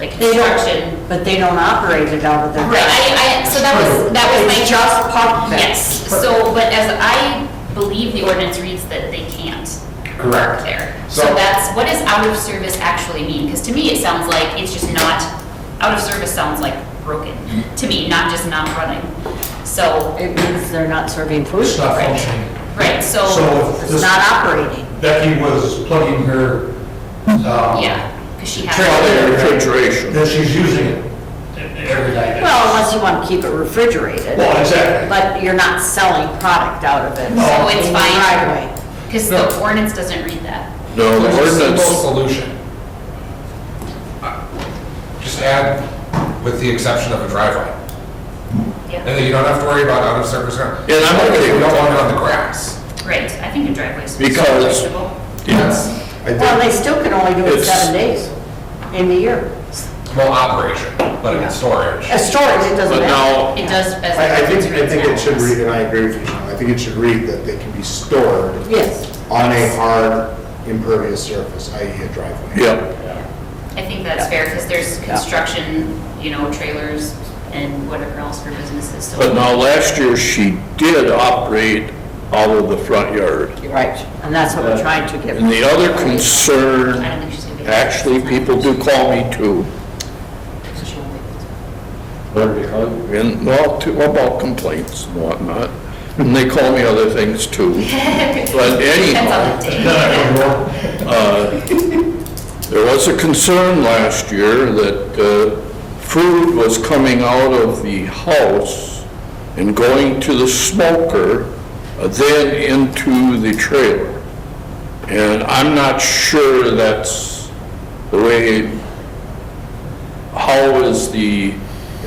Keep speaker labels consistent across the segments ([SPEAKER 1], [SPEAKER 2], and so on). [SPEAKER 1] like
[SPEAKER 2] They don't-
[SPEAKER 1] construction.
[SPEAKER 2] But they don't operate it out of their.
[SPEAKER 1] Right, I, I, so that was, that was
[SPEAKER 2] They
[SPEAKER 1] my.
[SPEAKER 2] just park there.
[SPEAKER 1] Yes, so, but as I believe the ordinance reads that they can't park
[SPEAKER 3] Correct.
[SPEAKER 1] there. So
[SPEAKER 3] So-
[SPEAKER 1] that's, what does out of service actually mean? Because to me, it sounds like it's just not, out of service sounds like broken, to me, not just not running. So,
[SPEAKER 2] It means they're not serving food.
[SPEAKER 3] It's not functioning.
[SPEAKER 1] right, so.
[SPEAKER 3] So if
[SPEAKER 2] It's
[SPEAKER 3] this-
[SPEAKER 2] not operating.
[SPEAKER 3] Becky was plugging her,
[SPEAKER 4] uh,
[SPEAKER 3] um,
[SPEAKER 1] Yeah, because she has.
[SPEAKER 3] trailer.
[SPEAKER 5] Refrigeration.
[SPEAKER 3] That she's using it every night.
[SPEAKER 2] Well, unless you want to keep it refrigerated,
[SPEAKER 3] Well, exactly.
[SPEAKER 2] but you're not selling product out of it.
[SPEAKER 3] No.
[SPEAKER 1] So it's
[SPEAKER 2] In the
[SPEAKER 1] fine,
[SPEAKER 2] driveway.
[SPEAKER 1] because the ordinance doesn't read that.
[SPEAKER 5] No, the
[SPEAKER 3] It's a simple
[SPEAKER 5] ordinance,
[SPEAKER 3] Solution.
[SPEAKER 4] Uh, Just add, with the exception of a driveway. And
[SPEAKER 1] Yeah,
[SPEAKER 4] then you don't have to worry about out of service ground.
[SPEAKER 5] Yeah, and I'm okay
[SPEAKER 4] You
[SPEAKER 5] with
[SPEAKER 4] don't
[SPEAKER 5] that.
[SPEAKER 4] want it on the grass.
[SPEAKER 1] right, I think a driveway is.
[SPEAKER 5] Because-
[SPEAKER 1] reasonable.
[SPEAKER 5] yes, I
[SPEAKER 2] Well, they
[SPEAKER 5] think,
[SPEAKER 2] still can only do it
[SPEAKER 5] It's-
[SPEAKER 2] seven days in the year.
[SPEAKER 4] Well, operation, but in storage.
[SPEAKER 2] As storage, it doesn't
[SPEAKER 5] but
[SPEAKER 2] matter.
[SPEAKER 5] now,
[SPEAKER 1] It does best.
[SPEAKER 6] I, I think, I think it should read, and I agree with you, Sean, I think it should read that they can be stored
[SPEAKER 2] Yes,
[SPEAKER 6] on a hard impervious surface, i.e. a driveway.
[SPEAKER 5] yeah,
[SPEAKER 1] I think that's fair, because there's construction, you know, trailers and whatever else for businesses, so.
[SPEAKER 5] but now last year she did operate out of the front yard.
[SPEAKER 2] you're right, and that's what we're trying to give.
[SPEAKER 5] And the other concern,
[SPEAKER 1] I don't think she's gonna be-
[SPEAKER 5] actually, people do call me too,
[SPEAKER 1] So she won't be able to.
[SPEAKER 5] and, well, to- about complaints and whatnot, and they call me other things too. But
[SPEAKER 1] Depends
[SPEAKER 5] anyhow,
[SPEAKER 1] on the day.
[SPEAKER 5] uh, there was a concern last year that uh, food was coming out of the house and going to the smoker, uh, then into the trailer. And I'm not sure that's the way, how is the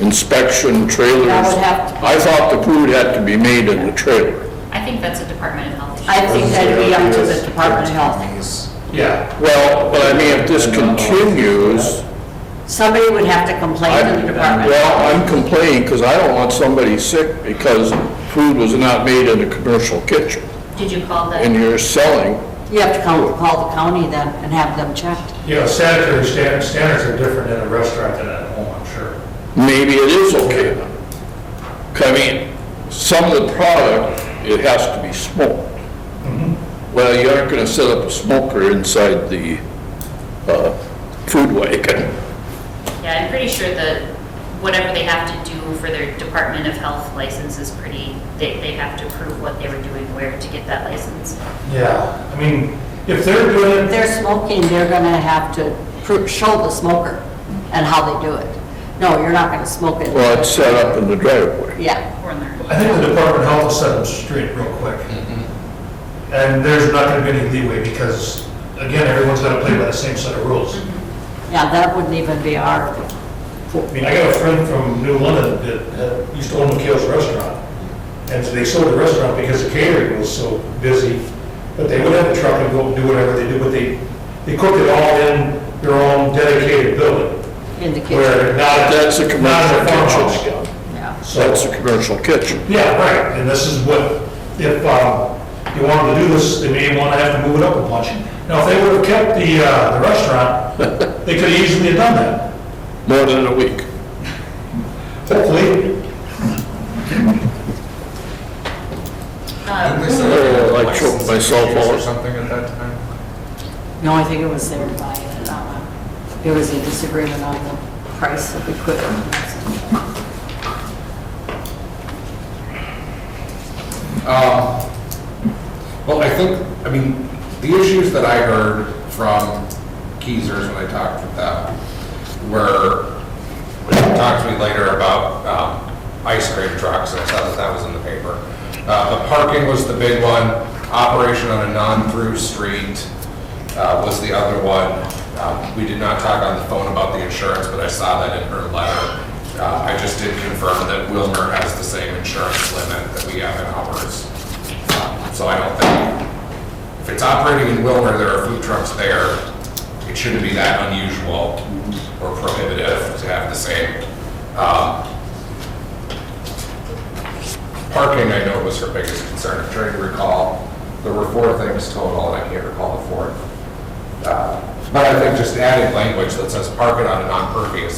[SPEAKER 5] inspection trailers?
[SPEAKER 2] That would have to be-
[SPEAKER 5] I thought the food had to be made in the trailer.
[SPEAKER 1] I think that's a Department of Health issue.
[SPEAKER 2] I think that'd be up to the Department of Health.
[SPEAKER 3] Yeah.
[SPEAKER 5] Well, but I mean, if this continues,
[SPEAKER 2] Somebody would have to complain to the Department. of Health.
[SPEAKER 5] Well, I'm complaining because I don't want somebody sick because food was not made in a commercial kitchen
[SPEAKER 1] Did you call
[SPEAKER 5] and
[SPEAKER 1] the,
[SPEAKER 5] you're selling.
[SPEAKER 2] You have to call, call the county then and have them checked.
[SPEAKER 3] You know, sanitary stan- standards are different in a restaurant than at home, I'm sure.
[SPEAKER 5] Maybe it is okay then. 'Cause I mean, some of the product, it has to be smoked.
[SPEAKER 3] Mm-hmm.
[SPEAKER 5] Well, you aren't going to set up a smoker inside the uh, food wagon.
[SPEAKER 1] yeah, I'm pretty sure the, whatever they have to do for their Department of Health license is pretty, they, they have to prove what they were doing where to get that license.
[SPEAKER 3] Yeah, I mean, if they're doing
[SPEAKER 2] If
[SPEAKER 3] it,
[SPEAKER 2] they're smoking, they're gonna have to pro- show the smoker and how they do it. No, you're not gonna smoke it.
[SPEAKER 5] Well, it's uh, set up in the driveway.
[SPEAKER 2] Yeah,
[SPEAKER 1] Or learn.
[SPEAKER 3] I think the Department of Health will set them straight real quick.
[SPEAKER 5] Mm-hmm.
[SPEAKER 3] And there's not gonna be any leeway because, again, everyone's gotta play by the same set of rules.
[SPEAKER 5] Mm-hmm.
[SPEAKER 2] yeah, that wouldn't even be our,
[SPEAKER 3] I mean, I got a friend from New London that had- used to own McHale's Restaurant. And they sold the restaurant because the catering was so busy. But they would have a truck and go do whatever they do, but they, they cook it all in their own dedicated building.
[SPEAKER 2] in the kitchen.
[SPEAKER 3] Where not.
[SPEAKER 5] That's a
[SPEAKER 3] not
[SPEAKER 5] commercial
[SPEAKER 3] in a farmhouse.
[SPEAKER 5] kitchen.
[SPEAKER 2] Yeah.
[SPEAKER 3] So-
[SPEAKER 5] That's a commercial kitchen.
[SPEAKER 3] Yeah, right, and this is what, if um, you wanted to do this, they may want to have to move it up a bunch. Now, if they would have kept the uh, the restaurant, they could have easily have done that,
[SPEAKER 5] More than a week.
[SPEAKER 3] hopefully.
[SPEAKER 1] Um,
[SPEAKER 4] Didn't they say they had
[SPEAKER 5] Oh, I
[SPEAKER 4] license
[SPEAKER 5] choked myself
[SPEAKER 4] fees Or
[SPEAKER 5] out.
[SPEAKER 4] something at that time?
[SPEAKER 2] No, I think it was their buying it on, a- uh, it was a disagreement on the price of equipment.
[SPEAKER 4] Um, Well, I think, I mean, the issues that I heard from Keezers when I talked with them were, when they talked to me later about um, ice cream trucks, and I saw that that was in the paper. Uh, The parking was the big one, operation on a non-through street uh, was the other one. Um, We did not talk on the phone about the insurance, but I saw that in her letter. Uh, I just did confirm that Wilmer has the same insurance limit that we have in ours. Um, So I don't think, if it's operating in Wilmer, there are food trucks there, it shouldn't be that unusual or prohibitive to have the same. Um, Parking, I know was her biggest concern, I'm trying to recall, there were four things total, and I can't recall the fourth. Uh, But I think just adding language that says park it on a non-pervious